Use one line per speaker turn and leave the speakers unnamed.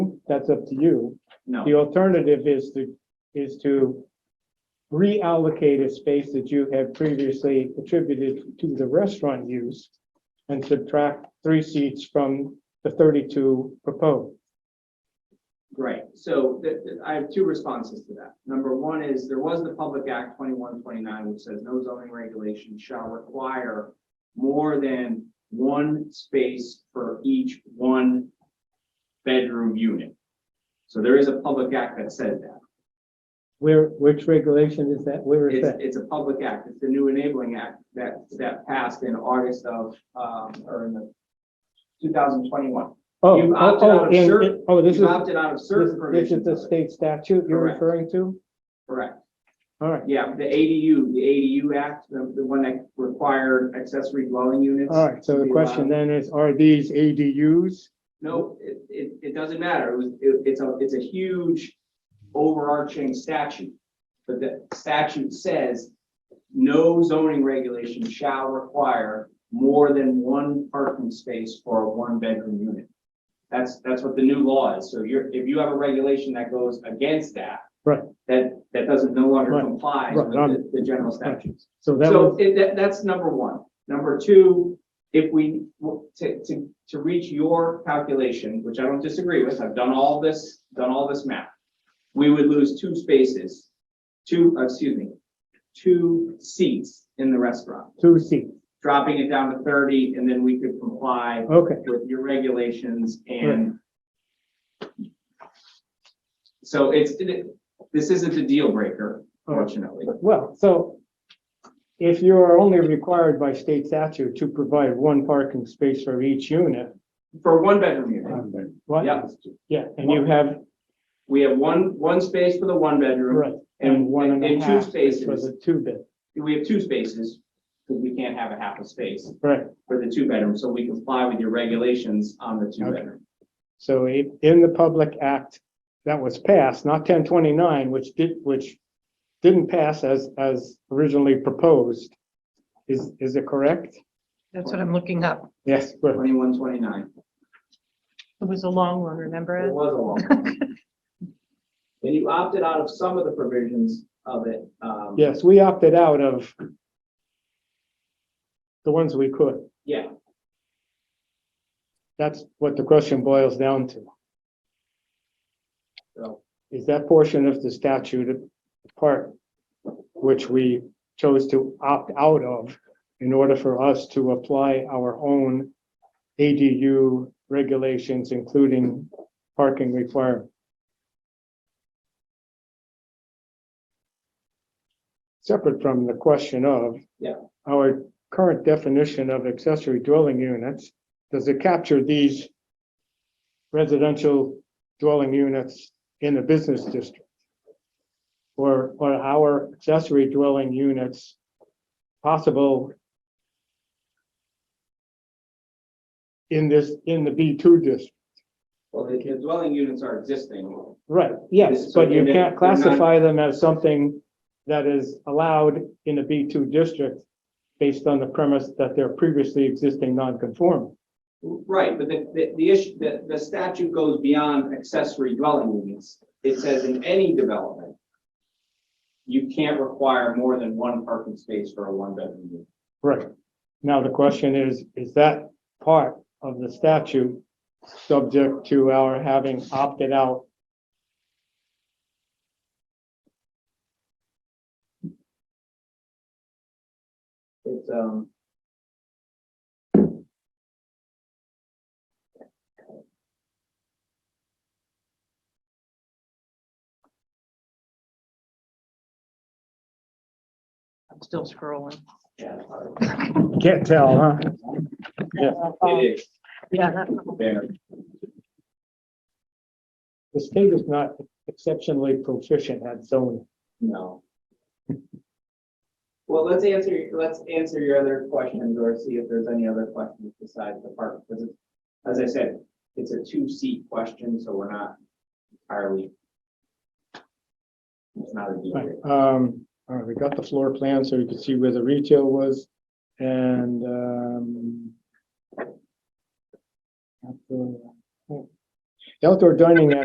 that's up to you.
No,
The alternative is to, is to reallocate a space that you have previously attributed to the restaurant use and subtract three seats from the thirty-two proposed.
right. So th- th- I have two responses to that. Number one is there was the Public Act twenty-one twenty-nine, which says no zoning regulation shall require more than one space for each one bedroom unit. So there is a public act that says that.
Where, which regulation is that? Where is
It's,
that?
it's a public act. It's the new enabling act that, that passed in August of, um, or in the two thousand twenty-one.
Oh,
you
oh,
opted
oh,
out of
and-
certain-
and- oh, this is,
You opted out of certain
this- this is
provisions.
the
of it.
state statute you're
Correct.
referring to?
Correct.
All right,
Yeah, the ADU, the ADU Act, the, the one that required accessory dwelling units.
all right. So
to
the
be
question
allowed.
then is, are these ADUs?
No, it, it, it doesn't matter. It was, it, it's a, it's a huge overarching statute. But the statute says no zoning regulation shall require more than one parking space for a one-bedroom unit. That's, that's what the new law is. So you're, if you have a regulation that goes against that.
Right.
That, that doesn't no longer
Right.
comply
Right. Um,
with the, the general statutes.
So that
So
was,
it- that, that's number one. Number two, if we, w- to, to, to reach your calculation, which I don't disagree with, I've done all this, done all this math. We would lose two spaces, two, uh, excuse me, two seats in the restaurant,
two seats.
dropping it down to thirty, and then we could comply
Okay,
with your regulations and so it's, it- this isn't a deal breaker,
All right.
fortunately.
well, so if you are only required by state statute to provide one parking space for each unit,
For one bedroom unit.
what?
Yeah.
Yeah, and you have,
We have one, one space for the one bedroom,
right, and one and a
and two
half space for
spaces.
the two bed,
we have two spaces, because we can't have a half a space
right?
for the two bedroom, so we comply with your regulations on the two bedroom.
So i- in the Public Act that was passed, not ten twenty-nine, which did, which didn't pass as, as originally proposed. Is, is it correct?
That's what I'm looking up.
Yes, well,
Twenty-one, twenty-nine.
It was a long one, remember
It
it?
was a long. And you opted out of some of the provisions of it. um,
yes, we opted out of the ones we could.
Yeah,
That's what the question boils down to.
so,
Is that portion of the statute part which we chose to opt out of in order for us to apply our own ADU regulations, including parking requirement? Separate from the question of
Yeah.
our current definition of accessory dwelling units, does it capture these residential dwelling units in a business district. Or, or our accessory dwelling units, possible in this, in the B two district.
well, the the dwelling units are existing.
Right, yes,
So
but you
they're-
can't
they're not-
classify them as something that is allowed in a B two district based on the premise that they're previously existing non-conforming.
Right, but the, the, the issue, the, the statute goes beyond accessory dwelling units. It says in any development, you can't require more than one parking space for a one-bedroom unit.
Right. Now, the question is, is that part of the statute subject to our having opted out?
It's, um.
I'm still scrolling.
yeah,
Can't tell, huh?
It is
Yeah, that-
there.
The state is not exceptionally proficient at zoning.
No. Well, let's answer, let's answer your other questions or see if there's any other questions besides the park, because it- as I said, it's a two-seat question, so we're not entirely. It's not a deal.
Right,
breaker.
um, all right, we got the floor plan so you could see where the retail was and, um, outdoor- outdoor dining